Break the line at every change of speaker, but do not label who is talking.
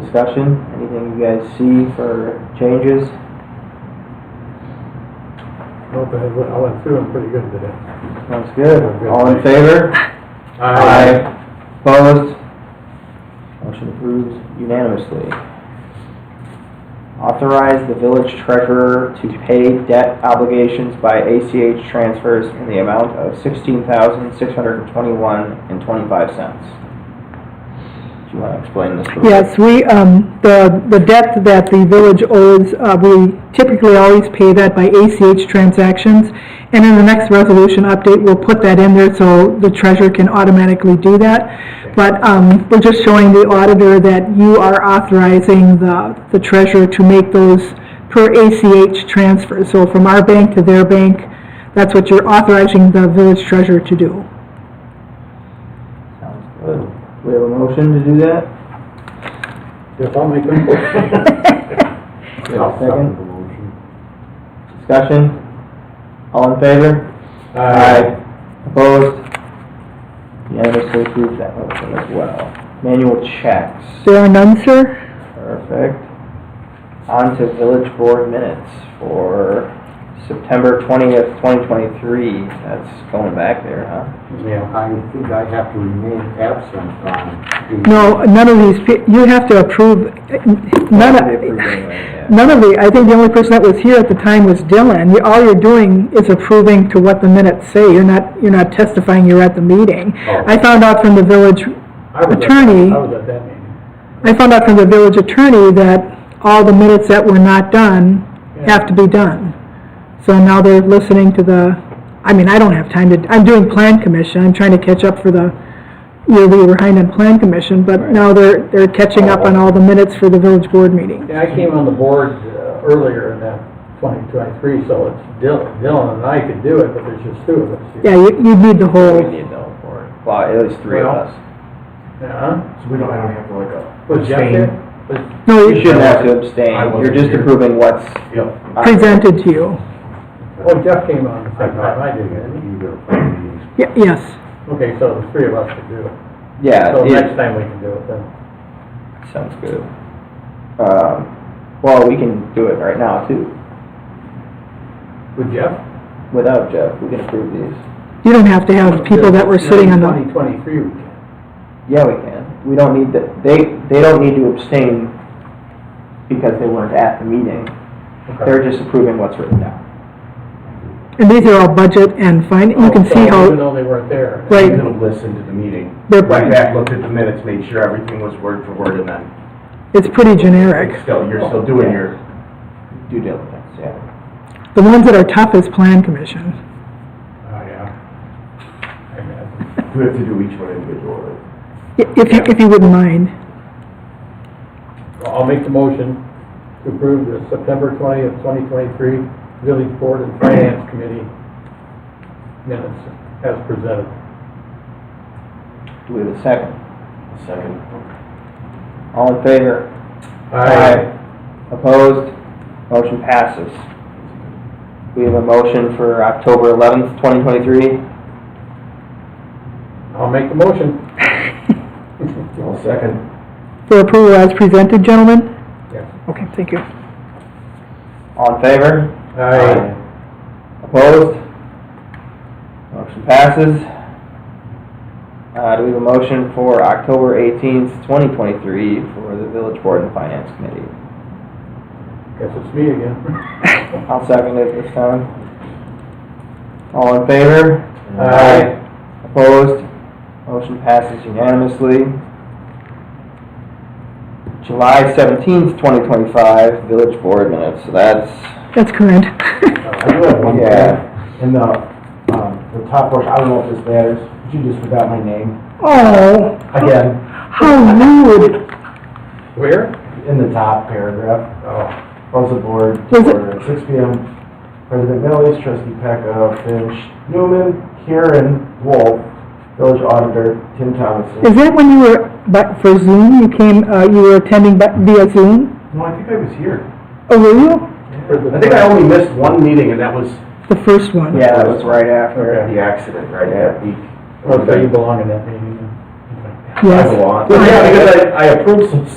Discussion, anything you guys see for changes?
Nope, I went- I went through them pretty good today.
Sounds good. All in favor? Opposed? Motion approved unanimously. Authorize the village treasurer to pay debt obligations by ACH transfers in the amount of sixteen thousand, six hundred and twenty-one and twenty-five cents. Do you want to explain this? Lou?
Yes, we, um, the, the debt that the village owes, uh, we typically always pay that by ACH transactions. And in the next resolution update, we'll put that in there so the treasurer can automatically do that. But, um, we're just showing the auditor that you are authorizing the, the treasurer to make those per ACH transfers. So from our bank to their bank, that's what you're authorizing the village treasurer to do.
Sounds good. We have a motion to do that?
Yes, I'll make them.
We have a second? Discussion? All in favor? Opposed? Unanimously approved that motion as well. Manual checks.
There are none, sir?
Perfect. On to village board minutes for September twentieth, twenty twenty-three. That's going back there, huh?
Yeah, I think I have to remain absent on the...
No, none of these, pe- you have to approve, eh, none
They approved anyway,
of,
yeah.
none of the, I think the only person that was here at the time was Dylan. You- All you're doing is approving to what the minutes say, you're not, you're not testifying, you're at the meeting.
Oh.
I found out from the village,
I was at-
Attorney.
I was at that meeting.
I found out from the village attorney that all the minutes that were not done have to be done. So now they're listening to the, I mean, I don't have time to, I'm doing plan commission, I'm trying to catch up for the, year we were behind on plan commission, but now they're, they're catching up on all the minutes for the village board meeting.
Yeah, I came on the board uh, earlier in that 2023, so it's Dylan, Dylan and I could do it, but there's just two of us here.
Yeah, you, you need the
We
whole,
need though for, well, at least three of
Well,
us.
Yeah.
So we don't, I don't have to like a.
Uh, Was Jeff
abstain?
here? Was-
no,
You shouldn't
it's
have to abstain.
I wasn't
You're just
here.
approving what's. uh,
Yep.
presented to you.
Oh, Jeff came on the
I
second time
thought
I
I
did,
did
didn't
either of these.
Ye- Yes,
he? Okay, so the three of us could do it.
Yeah.
So
it-
next time we can do it then.
Sounds good. Um, well, we can do it right now too,
With Jeff?
without Jeff. We can approve these.
you don't have to have people that were sitting on the,
2023 weekend.
Yeah, we can. We don't need the, they, they don't need to abstain because they weren't at the meeting. They're just approving what's written down.
and these are all budget and fin, you can see
Oh, Even
how,
though they weren't there.
Right.
You don't listen to the meeting.
They're-
Went back, looked at the minutes, made sure everything was word for word, and then
it's pretty generic.
still, you're still doing your,
Due diligence, yeah.
The ones that are tough is plan commission.
Oh, yeah. I imagine.
we have to do each one individually.
I- If you, if you wouldn't mind.
Well, I'll make the motion to approve the September 20th, 2023 Village Board and Finance Committee minutes as presented.
Do we have a second?
Second.
All in favor? Opposed? Motion passes. We have a motion for October eleventh, twenty twenty-three.
I'll make the motion.
All second.
For approval as presented, gentlemen?
Yes.
Okay, thank you.
All in favor?
Aye.
Opposed? Motion passes. Uh, do we have a motion for October eighteenth, twenty twenty-three for the village board and finance committee?
Guess it's me again.
I'll second it this time. All in favor?
Aye.
Opposed? Motion passes unanimously. July seventeenth, twenty twenty-five, village board minutes, so that's,
That's current.
I do have one thing,
yeah.
in the, um, the top portion, I don't know if this matters, but you just forgot my name.
Oh,
Again,
how rude.
Where?
in the top paragraph,
Oh.
was the board
Was it-
for six P M. President Millies, trustee Pecca, Finch, Newman, Karen, Wolf, village auditor, Tim Thomason.
Is that when you were, but for Zoom, you came, uh, you were attending bu- via Zoom?
No, I think I was here.
Oh, were you?
For the-
I think I only missed one meeting, and that was
The first one?
Yeah, that was right after.
the accident, right, that week.
Oh, so you belong in that meeting. then. Okay.
Yes.
I belong. Yeah, because I, I approved some